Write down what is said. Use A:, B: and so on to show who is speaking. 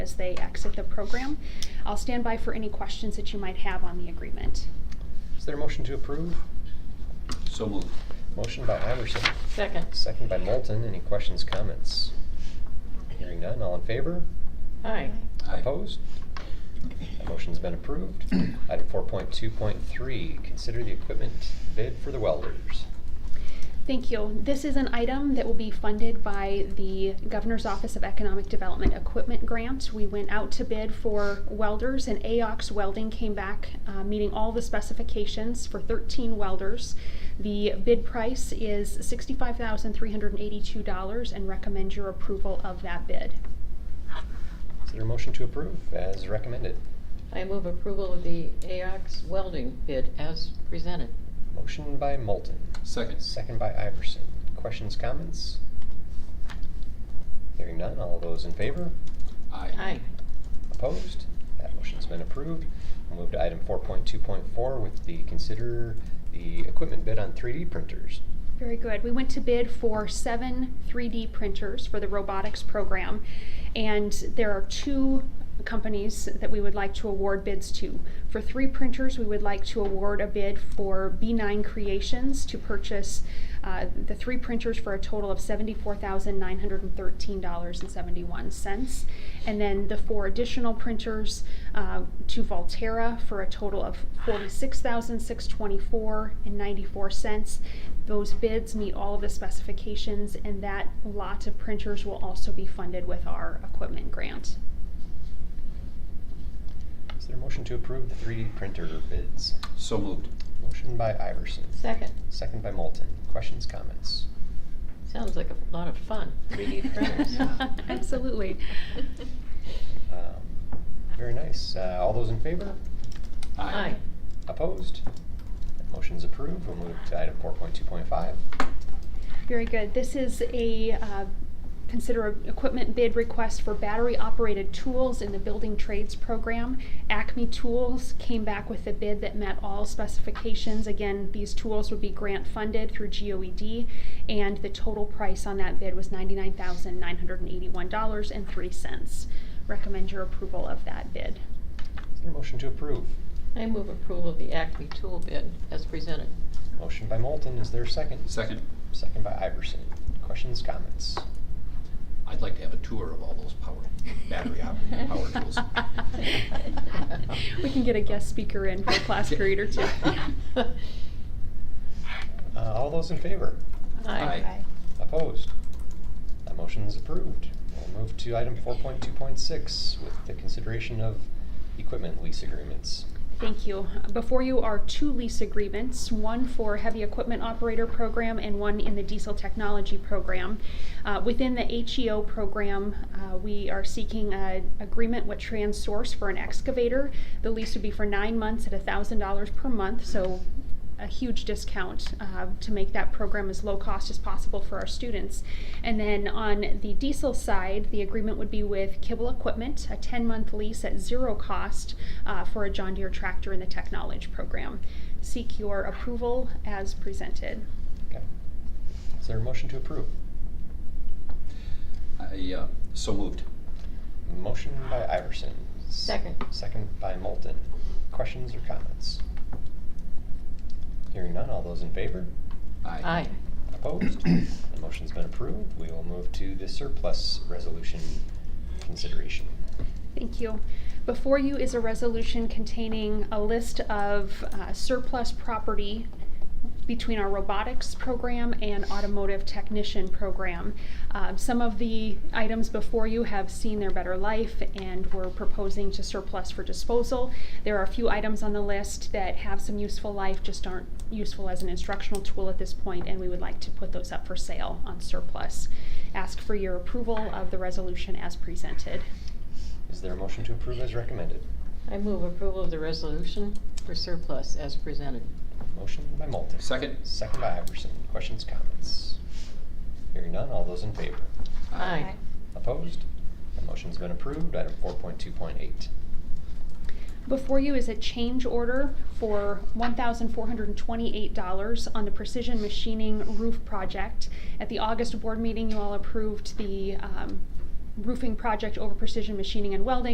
A: as they exit the program. I'll stand by for any questions that you might have on the agreement.
B: Is there a motion to approve?
C: So moved.
B: Motion by Iverson,
D: Second.
B: second by Moulton. Any questions, comments? Hearing none, all in favor?
D: Aye.
C: Aye.
B: Opposed? That motion's been approved. Item four point two point three, consider the equipment bid for the welders.
A: Thank you. This is an item that will be funded by the Governor's Office of Economic Development Equipment Grant. We went out to bid for welders, and AOX Welding came back, uh, meeting all the specifications for 13 welders. The bid price is $65,382 and recommend your approval of that bid.
B: Is there a motion to approve as recommended?
D: I move approval of the AOX welding bid as presented.
B: Motion by Moulton,
C: Second.
B: second by Iverson. Questions, comments? Hearing none, all those in favor?
D: Aye.
B: Opposed? That motion's been approved. We'll move to item four point two point four with the consider the equipment bid on three D printers.
A: Very good. We went to bid for seven 3D printers for the robotics program, and there are two companies that we would like to award bids to. For three printers, we would like to award a bid for B9 Creations to purchase uh, the three printers for a total of $74,913.71. And then the four additional printers uh, to Volterra for a total of $46,624.94. Those bids meet all of the specifications, and that lot of printers will also be funded with our equipment grant.
B: Is there a motion to approve the three D printer bids?
C: So moved.
B: Motion by Iverson,
D: Second.
B: second by Moulton. Questions, comments?
D: Sounds like a lot of fun. 3D printers.
C: Yeah.
A: Absolutely.
B: Um, Very nice. Uh, all those in favor?
D: Aye.
B: Opposed? That motion's approved. We'll move to item four point two point five.
A: Very good. This is a, uh, consider a equipment bid request for battery-operated tools in the building trades program. Acme Tools came back with a bid that met all specifications. Again, these tools would be grant-funded through GOED, and the total price on that bid was ninety-nine thousand nine hundred and eighty-one dollars and three cents. Recommend your approval of that bid.
B: Is there a motion to approve?
D: I move approval of the Acme tool bid as presented.
B: Motion by Moulton. Is there a second?
C: Second.
B: Second by Iverson. Questions, comments?
C: I'd like to have a tour of all those power, battery operated power tools.
A: We can get a guest speaker in for a class period or two.
B: Uh, all those in favor?
D: Aye.
B: Opposed? That motion is approved. We'll move to item four point two point six with the consideration of equipment lease agreements.
A: Thank you. Before you are two lease agreements, one for heavy equipment operator program and one in the diesel technology program. Uh, within the HEO program, uh, we are seeking an agreement with Transsource for an excavator. The lease would be for nine months at thousand dollars per month, so a huge discount uh, to make that program as low cost as possible for our students. And then on the diesel side, the agreement would be with Kibble Equipment, a 10 month lease at zero cost uh, for a John Deere tractor in the Technology program. Seek your approval as presented.
B: Okay. Is there a motion to approve?
C: I, uh, so moved.
B: Motion by Iverson. S-
D: Second.
B: Second by Moulton. Questions or comments? Hearing none, all those in favor?
D: Aye.
B: Opposed? The motion's been approved. We will move to the surplus resolution consideration.
A: Thank you. Before you is a resolution containing a list of uh, surplus property between our robotics program and automotive technician program. Um, Some of the items before you have seen their better life and we're proposing to surplus for disposal. There are a few items on the list that have some useful life, just aren't useful as an instructional tool at this point, and we would like to put those up for sale on surplus. Ask for your approval of the resolution as presented.
B: Is there a motion to approve as recommended?
D: I move approval of the resolution for surplus as presented.
B: Motion by Moulton.
C: Second.
B: Second by Iverson. Questions, comments? Hearing none, all those in favor?
D: Aye.
B: Opposed? The motion's been approved. Item four point two point eight.
A: Before you is a change order for $1,428 on the Precision Machining Roof Project. At the August board meeting, you all approved the um, roofing project over precision machining and welding